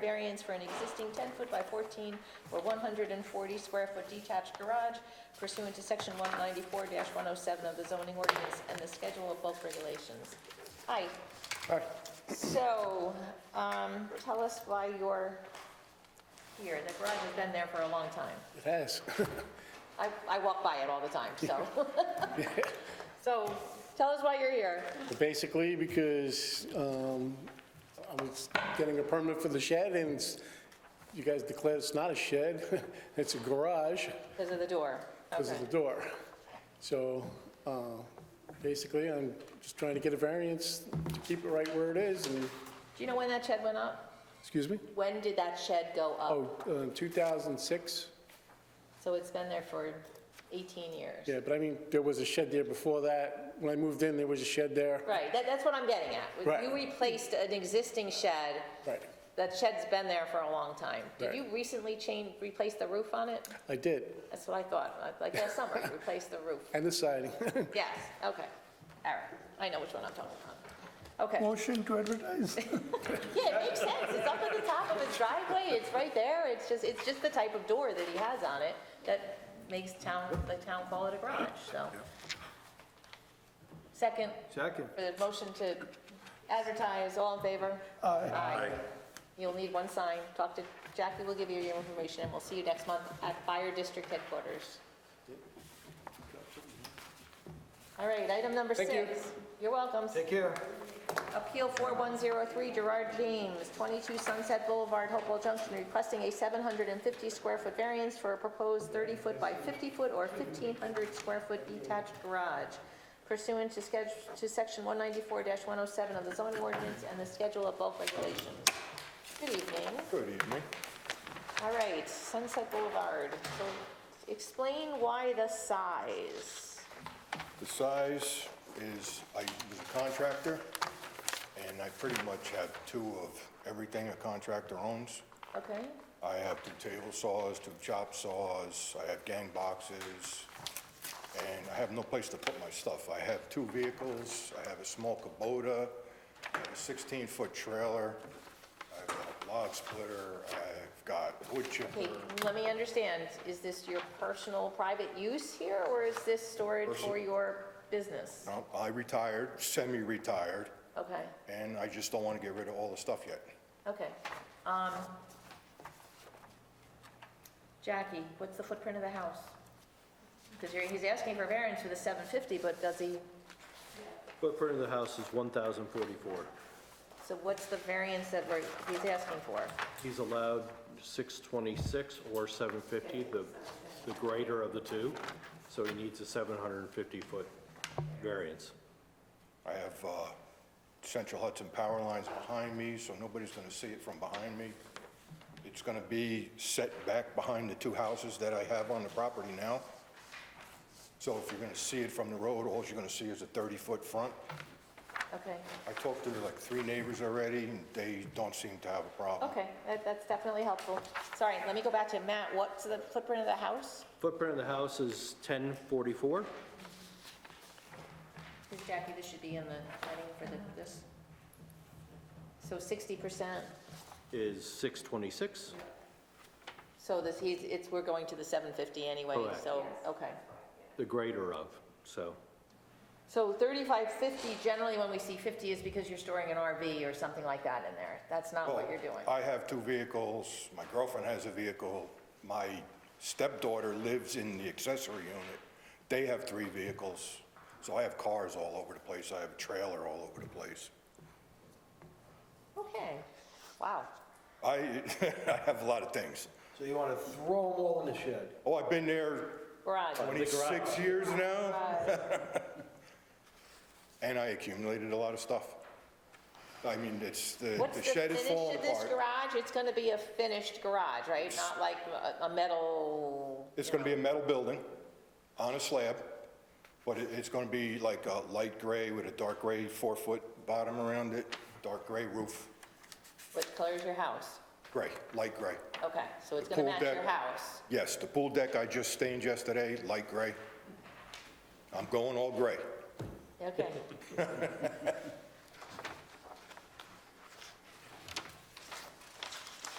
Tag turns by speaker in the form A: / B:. A: Variance for an existing 10-foot by 14 or 140-square-foot detached garage pursuant to Section 194-107 of the zoning ordinance and the schedule of bulk regulations. Hi.
B: Hi.
A: So, um, tell us why you're here. The garage has been there for a long time.
B: It has.
A: I, I walk by it all the time, so. So, tell us why you're here.
B: Basically, because um, I was getting a permit for the shed, and it's- you guys declared it's not a shed, it's a garage
A: Because of the door.
B: because
A: Okay.
B: of the door. So uh, basically, I'm just trying to get a variance to keep it right where it is, and,
A: Do you know when that shed went up?
B: excuse me?
A: When did that shed go up?
B: Oh, uh, 2006?
A: So it's been there for 18 years?
B: Yeah, but I mean, there was a shed there before that. When I moved in, there was a shed there.
A: Right, that, that's what I'm getting at.
B: Right.
A: You replaced an existing shed,
B: Right,
A: that shed's been there for a long time. Did
B: Right.
A: you recently change, replace the roof on it?
B: I did,
A: That's what I thought, like last summer, you replaced the roof.
B: and the siding.
A: Yes, okay, all right, I know which one I'm talking about. Okay,
C: Motion to advertise.
A: yeah, it makes sense, it's up at the top of his driveway, it's right there, it's just, it's just the type of door that he has on it that makes town, the town call it a garage, so. Second,
D: Second.
A: For the motion to advertise, all in favor?
C: Aye.
A: You'll need one sign. Talk to, Jackie will give you your information, and we'll see you next month at Fire District Headquarters. All right, item number six.
B: Thank you.
A: You're welcome.
D: Take care.
A: Appeal 4103, Gerard James, 22 Sunset Boulevard, Hopewell Junction, requesting a 750-square-foot variance for a proposed 30-foot by 50-foot or 1,500-square-foot detached garage pursuant to schedule, to Section 194-107 of the zoning ordinance and the Schedule of Bulk Regulations. Good evening.
E: Good evening.
A: All right, Sunset Boulevard. So explain why the size.
E: The size is, I was a contractor, and I pretty much have two of everything a contractor owns.
A: Okay?
E: I have two table saws, two chop saws, I have gang boxes, and I have no place to put my stuff. I have two vehicles, I have a small Kubota, I have a 16-foot trailer, I have a log splitter, I've got wood
A: Okay,
E: chipper,
A: let me understand, is this your personal, private use here, or is this storage for your business?
E: No, I retired, semi-retired,
A: Okay,
E: and I just don't want to get rid of all the stuff yet.
A: okay. Um, Jackie, what's the footprint of the house? Because he's asking for variance for the 750, but does he,
D: Footprint of the house is 1,044.
A: so what's the variance that we're- he's asking for?
D: He's allowed 626 or 750, the the greater of the two, so he needs a 750-foot variance.
E: I have uh, Central Hudson power lines behind me, so nobody's going to see it from behind me. It's going to be set back behind the two houses that I have on the property now. So if you're going to see it from the road, all you're going to see is a 30-foot front.
A: Okay,
E: I talked to like three neighbors already, and they don't seem to have a problem.
A: okay, that- that's definitely helpful. Sorry, let me go back to Matt, what's the footprint of the house?
D: Footprint of the house is 1044.
A: Because Jackie, this should be in the planning for the, this. So sixty percent,
D: is 626.
A: so this, he's, it's, we're going to the seven fifty anyway,
D: Correct.
A: so, okay.
D: the greater of, so.
A: So thirty-five fifty, generally when we see fifty is because you're storing an RV or something like that in there. That's not what you're doing.
E: Well, Oh, I have two vehicles, my girlfriend has a vehicle, my stepdaughter lives in the accessory unit. They have three vehicles, so I have cars all over the place, I have a trailer all over the place.
A: Okay, wow.
E: I, I have a lot of things.
F: So you want to throw them all in the shed?
E: Oh, I've been there
A: Garage,
E: 26 years now. And I accumulated a lot of stuff. I mean, it's, the
A: what's
E: the
A: the
E: shed is
A: finish
E: falling
A: of this
E: apart.
A: garage? It's gonna be a finished garage, right? Not like a, a metal,
E: It's going to be a metal building on a slab, but it- it's going to be like a light gray with a dark gray four-foot bottom around it, dark gray roof,
A: what color is your house?